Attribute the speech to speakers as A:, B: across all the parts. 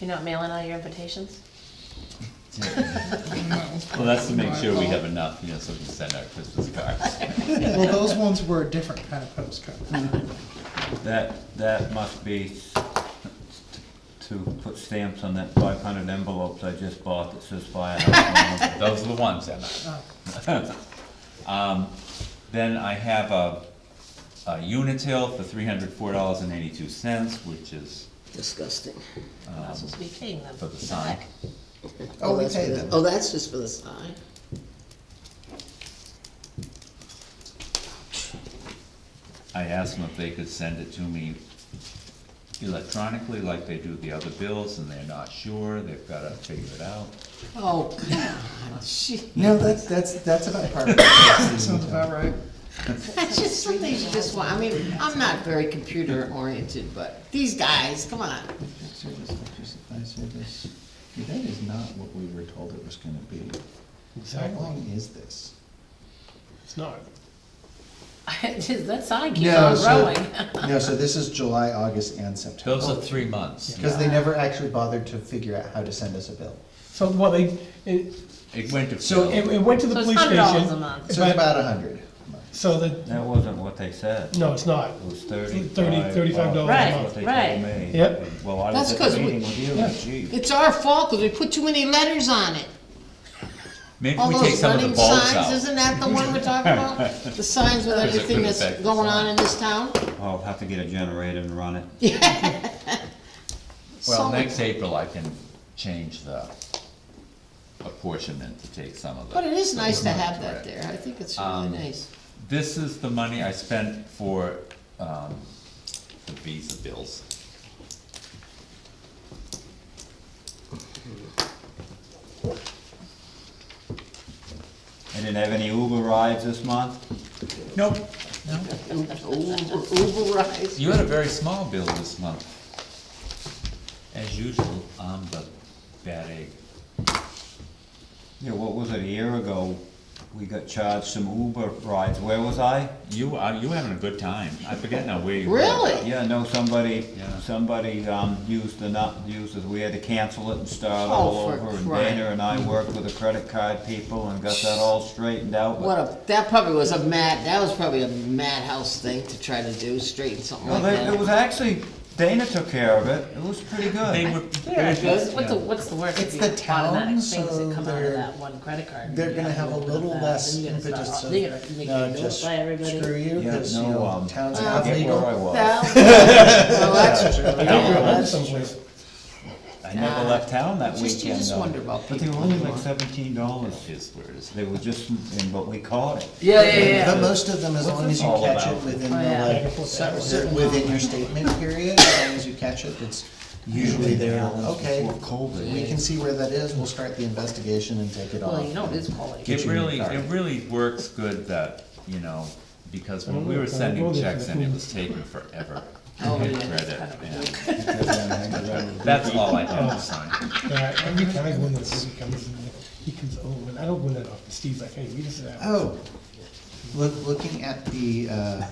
A: You're not mailing out your invitations?
B: Well, that's to make sure we have enough, you know, so we can send out Christmas cards.
C: Well, those ones were a different kind of postcard.
D: That, that must be s- to put stamps on that five hundred envelopes I just bought that says firehouse. on them.
B: Those are the ones, Emma.
C: Oh,
E: Uh,
B: Um, then I have a, a Unitil for three hundred four dollars and eighty-two cents, which is
F: Disgusting.
A: We're not supposed to be paying them.
B: for the sign.
C: Oh, we
F: that's
C: paid
F: for the-
C: them.
F: Oh, that's just for the sign.
B: I asked them if they could send it to me electronically like they do the other bills, and they're not sure, they've gotta figure it out.
F: Oh, God, gee.
G: You know, that's, that's, that's about part of it.
C: Sounds about right.
F: That's just some things you just want, I mean, I'm not very computer oriented, but these guys, come on.
G: Service, electricity, service. That is not what we were told it was gonna be. How long is this?
E: It's not.
A: That sign keeps
G: No,
A: on
G: so,
A: growing.
G: no, so this is July, August, and September.
B: Those are three months.
G: Because they never actually bothered to figure out how to send us a bill.
E: So, well, they, it,
B: It went to
E: so it,
B: Phil.
E: it went to the
A: So it's
E: police station.
A: $100 a month.
G: So
E: but-
G: it's about a hundred.
E: So the,
D: That wasn't what they said.
E: no, it's not.
D: It was
E: Thirty-
D: thirty-five.
E: $35 a
D: That's
A: month.
D: what they
A: Right,
D: told
A: right.
D: me.
E: Yep.
D: Well, I was
F: That's
D: at
F: 'cause
D: the
F: we-
D: meeting with you,
E: Yeah.
D: gee.
F: It's our fault, cause we put too many letters on it.
B: Maybe
F: All
B: we take
F: those
B: some of the
F: running
B: bulbs
F: signs,
B: out.
F: isn't that the one we're talking about? The signs with
B: it
F: everything
B: couldn't
F: that's
B: affect the
F: going on
B: sign.
F: in this town?
D: I'll have to get a generator and run it.
B: Well,
F: Some-
B: next April I can change the apportionment to take some of the.
F: But it is
B: some
F: nice
B: of
F: to
B: the-
F: have that
B: correct.
F: there, I think it's
B: Um,
F: really nice.
B: This is the money I spent for, um, the visa bills.
D: I didn't have any Uber rides this month.
B: Nope.
F: Uber Uber rides.
B: You had a very small bill this month. As usual, I'm the bad egg.
D: Yeah, what was it, a year ago, we got charged some Uber rides. Where was I?
B: You, are, you having a good time. I forget now where you were.
F: Really?
D: Yeah, no, somebody,
B: Yeah.
D: somebody, um, used the not, used it, we had to cancel it and start all
F: Oh, for
D: over, and
F: crying.
D: Dana and I worked with the credit card people and got that all straightened out.
F: What
D: but-
F: a, that probably was a mad, that was probably a madhouse thing to try to do, straighten something
D: No,
F: like
D: they, it was
F: that.
D: actually, Dana took care of it, it was pretty
B: They
D: good.
B: were.
A: They're good. What's the,
B: Yeah.
A: what's the word?
C: It's the town,
A: Things
C: so
A: that come out of
C: they're-
A: that one credit card.
C: They're
A: You
C: gonna have a
A: open up
C: little
A: that,
C: less
A: then you're gonna start
C: impetus
A: all-
C: of,
A: They're gonna make
C: no,
A: you do it
C: uh, just
A: by everybody.
C: screw you,
D: Yeah,
C: because, you
D: no,
C: know,
D: um,
C: towns
D: I
C: have
D: forget where I
C: legal.
D: was.
F: Well, well, that's true.
E: That's
F: That's true.
E: someplace.
D: I never left town that
F: Just- you
D: weekend.
F: just
D: though.
F: wonder about
D: But they were
F: people
D: only like
F: anymore.
D: seventeen dollars,
B: Is where it is.
D: they were just, and- but we caught it.
A: Yeah, yeah, yeah.
G: But most of them, as long as you
D: all
G: catch
D: about?
G: it within
A: Oh, yeah.
G: the, like, cer- certain within your statement period, as long as you catch it, it's usually there, okay.
D: Before COVID.
G: We can see where that is, we'll start the investigation and take it off.
A: Well, you know, it is quality.
B: It
G: your new
B: really,
G: card.
B: it really works good that, you know, because
E: I
B: when
E: don't
B: we
E: know
B: were
E: if I
B: sending
E: will do
B: checks
E: that.
B: in, it was taking forever.
F: Oh,
B: I
F: yeah.
B: read it, and
D: It
B: That's all I have to sign.
E: Yeah, every time I go in there, he comes, in, he comes over, and I don't win that often. Steve's like, hey, we just have.
G: Oh, look, looking at the, uh,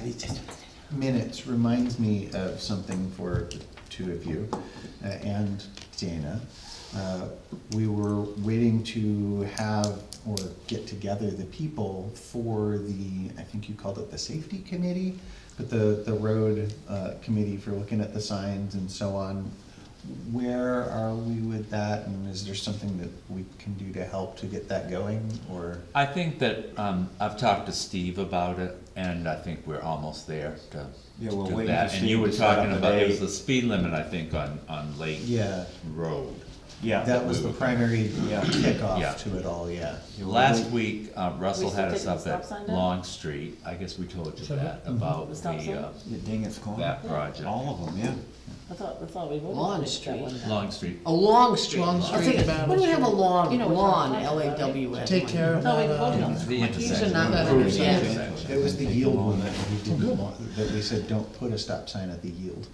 G: minutes reminds me of something for the two of you uh, and Dana. Uh, We were waiting to have or get together the people for the, I think you called it the safety committee, but the, the road uh, committee for looking at the signs and so on. Where are we with that and is there something that we can do to help to get that going or?
B: I think that, um, I've talked to Steve about it, and I think we're almost there to
D: Yeah, we're
B: do
D: waiting
B: that.
D: for
B: And you
D: Steve
B: were
D: to set up
B: talking
D: a
B: about, it was
D: date.
B: the speed limit, I think, on, on Lake
G: Yeah,
B: Road.
D: Yeah.
G: that was the primary
B: Yeah.
D: Yeah.
G: kickoff to it all, yeah.
B: Last week, uh, Russell
A: We still
B: had us
A: taking
B: up
A: stop
B: at
A: sign down?
B: Long Street, I guess we told you
E: Sorry?
B: that, about
A: The
B: the,
A: stop sign?
B: uh,
D: Yeah, Dingus Corner,
B: that project.
D: all of them, yeah.
A: I thought, I thought we voted.
F: Lawn
A: on it that
F: Street.
A: one time.
B: Long Street.
F: A long street.
C: Long
F: I'll
C: street,
F: take-
C: Battle
F: What do we have a
C: Street.
F: lawn,
A: You know what
F: lawn,
A: you're talking about, right?
F: L-A-W-N?
C: Take care of
A: No, we
C: that. uh,
A: voted on that.
B: The intersection.
F: not
B: the
F: that
B: approved
F: understand.
B: intersection.
G: It was the yield one that we didn't want, that we said, don't put a stop sign at the yield.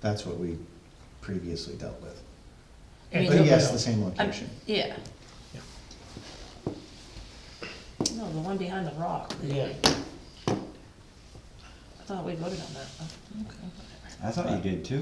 G: That's what we previously dealt with.
A: I mean,
G: But yes, the same location.
A: Yeah. No, the one behind the rock.
E: Yeah.
A: I thought we voted on that. Okay.
D: I thought you did too.